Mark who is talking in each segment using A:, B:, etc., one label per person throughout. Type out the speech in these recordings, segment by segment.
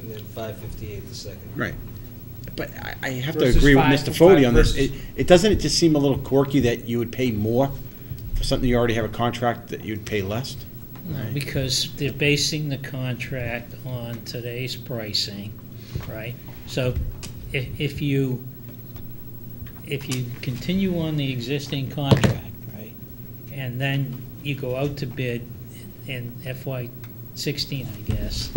A: and then five fifty-eight the second.
B: Right. But I, I have to
C: Versus
B: agree with
C: five-
B: Mr. Fode on this.
C: five
B: It, it, doesn't it just seem a little quirky that you would pay more for something you already have a contract that you'd pay less?
D: Because they're basing the contract on today's pricing, right? So if, if you, if you continue on the existing contract, right? And then you go out to bid in FY sixteen, I guess,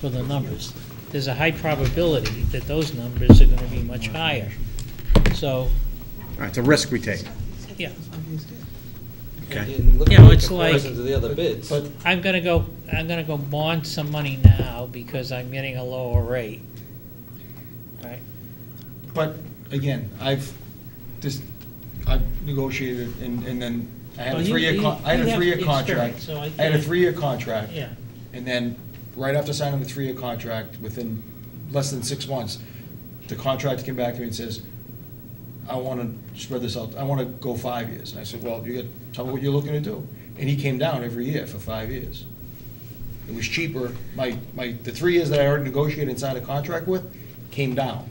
D: for the numbers, there's a high probability that those numbers are gonna be much higher. So,
B: It's a risk we take.
D: yeah,
B: Okay.
A: And look
D: Yeah,
A: at the
D: it's like-
A: comparison to the other bids.
C: But
D: I'm gonna go, I'm gonna go bond some money now because I'm getting a lower rate. Right?
C: But again, I've just, I've negotiated and, and then I had
D: Well,
C: a
D: you-
C: three-year, con-
D: you-
C: I had
D: you
C: a
D: have
C: three-year
D: experience,
C: contract.
D: so I
C: I had a
D: can't-
C: three-year contract.
D: Yeah.
C: And then, right after signing the three-year contract, within less than six months, the contract came back to me and says, I want to spread this out, I want to go five years. And I said, well, you got, tell me what you're looking to do. And he came down every year for five years. It was cheaper, my, my, the three years that I already negotiated and signed a contract with came down.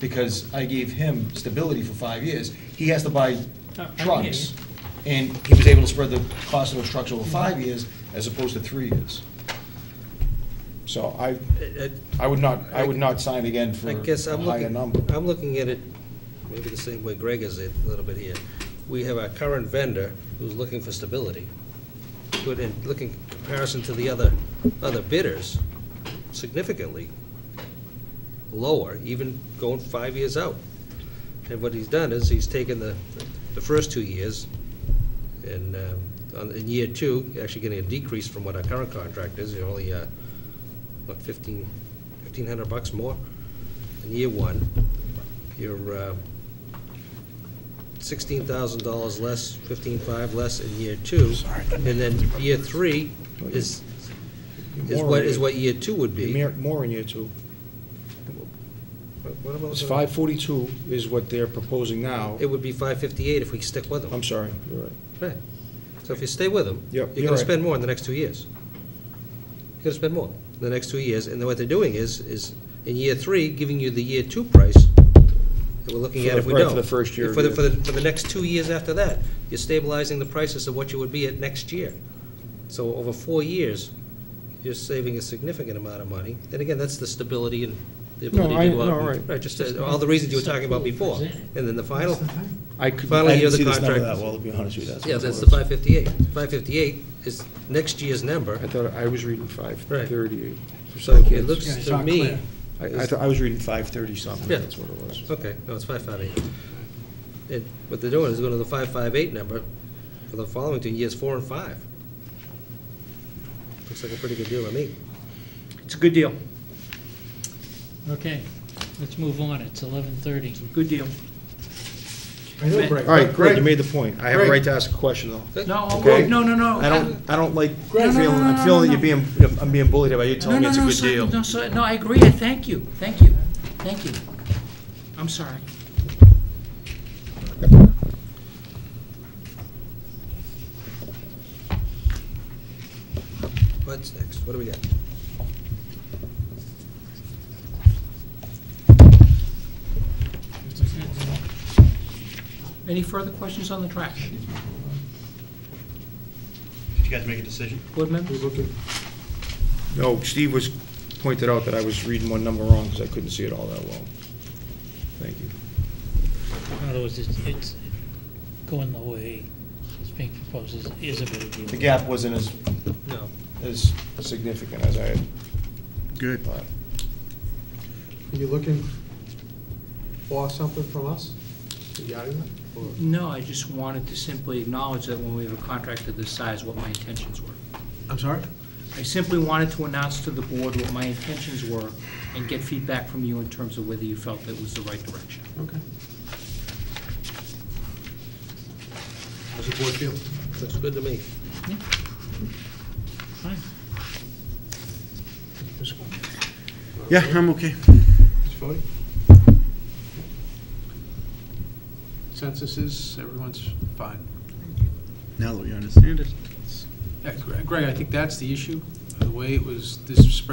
C: Because I gave him stability for five years. He has to buy
D: Uh, I- I hear
C: trucks. And he was able to spread the cost of those trucks over five years as opposed to three years. So I,
D: uh,
C: I would not, I would not sign again for
A: I guess
C: a
A: I'm
C: higher
A: looking,
C: number.
A: I'm looking at it maybe the same way Greg is it a little bit here. We have our current vendor who's looking for stability, but in looking comparison to the other, other bidders, significantly lower, even going five years out. And what he's done is he's taken the, the first two years and, um, on- in year two, actually getting a decrease from what our current contract is, you're only, uh, what, fifteen, fifteen hundred bucks more? in year one, you're uh, sixteen thousand dollars less, fifteen-five less in year two. And then year three is, is what, is what year two would be.
E: Mer- More in year two.
A: What- what am I
E: It's
A: looking at?
E: five forty-two is what they're proposing now.
A: It would be five fifty-eight if we stick with them.
E: I'm sorry, you're right.
A: Right. So if you stay with them,
E: Yep,
A: you're
E: you're
A: gonna
E: right.
A: spend more in the next two years. You're gonna spend more in the next two years, and then what they're doing is, is in year three, giving you the year two price that we're looking
E: For
A: at
E: the-
A: if we
E: right,
A: don't.
E: for the first year
A: For the,
E: of
A: for the, for the next two years after that, you're stabilizing the prices of what you would be at next year. So over four years, you're saving a significant amount of money, and again, that's the stability and the
E: No,
A: ability
E: I-
A: to go out.
E: no,
A: and-
E: right.
A: just, uh, all the reasons you were talking about before, and then the final,
E: I could,
A: Finally,
E: I
A: you're
E: didn't
A: the
E: see this number
A: contract.
E: that well, to be honest with you.
A: yeah,
E: what it
A: that's the
E: was.
A: five fifty-eight. Five fifty-eight is next year's number.
E: I thought, I was reading five thirty-eight for
A: So
E: some
A: it
E: kids.
A: looks to me,
E: I, I thought, I was reading five thirty something,
A: Yeah.
E: that's what it was.
A: okay, no, it's five five eight. And what they're doing is going to the five five eight number for the following two years, four and five. Looks like a pretty good deal to me.
F: It's a good deal,
D: Okay, let's move on. It's eleven thirty.
F: good deal.
E: All right, great, you made the point. I have a right to ask a question, though.
F: No, oh,
E: Okay.
F: no, no, no.
E: I don't, I don't like
F: Greg.
E: feeling, I'm feeling that you're being, I'm being bullied by you
F: No,
E: telling me
F: no,
E: it's a
F: no,
E: good
F: sorry,
E: deal.
F: no, sorry, no, I agree, thank you, thank you, thank you. I'm sorry.
A: What's next? What do we got?
F: Any further questions on the trash?
G: Did you guys make a decision?
F: Board members?
E: No, Steve was, pointed out that I was reading one number wrong, because I couldn't see it all that well. Thank you.
D: In other words, it's, it's going the way it's being proposed is, is a better deal.
C: The gap wasn't as,
A: No.
C: as
E: Significant as I had
B: Good.
E: thought.
H: Are you looking for something from us regarding that? or-
F: No, I just wanted to simply acknowledge that when we have a contract of this size, what my intentions were.
G: I'm sorry?
F: I simply wanted to announce to the board what my intentions were and get feedback from you in terms of whether you felt that was the right direction.
H: Okay.
G: How's the board feel?
A: Looks good to me.
D: Fine.
B: Yeah, I'm okay.
H: Mr. Fode? Census is, everyone's fine.
B: Now that we understand it.
H: Yeah, Gre- Greg, I think that's the issue, the way it was, this spread